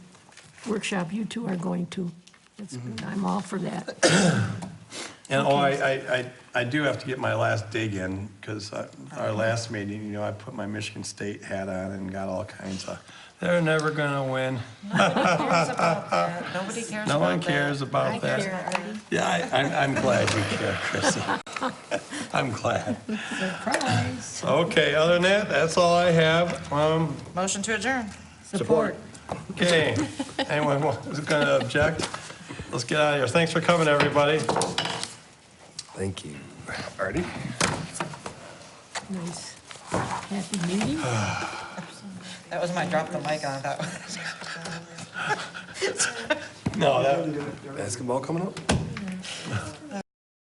workshop you two are going to. That's good. I'm all for that. And oh, I, I, I- I do have to get my last dig in, because our last meeting, you know, I put my Michigan State hat on and got all kinds of, they're never gonna win. cares about that. Nobody cares about that. No one cares about I that. care, Artie. Yeah, I, I'm, I'm glad you care, Chrissy. I'm glad. Surprise. Okay, other than that, that's all I have. Um, Motion to adjourn. Support. okay, anyone who's gonna object? Let's get out of here. Thanks for coming, everybody. Thank you. Artie? Nice. Happy meeting. That was my drop the mic on that one. No, that, Basketball coming up?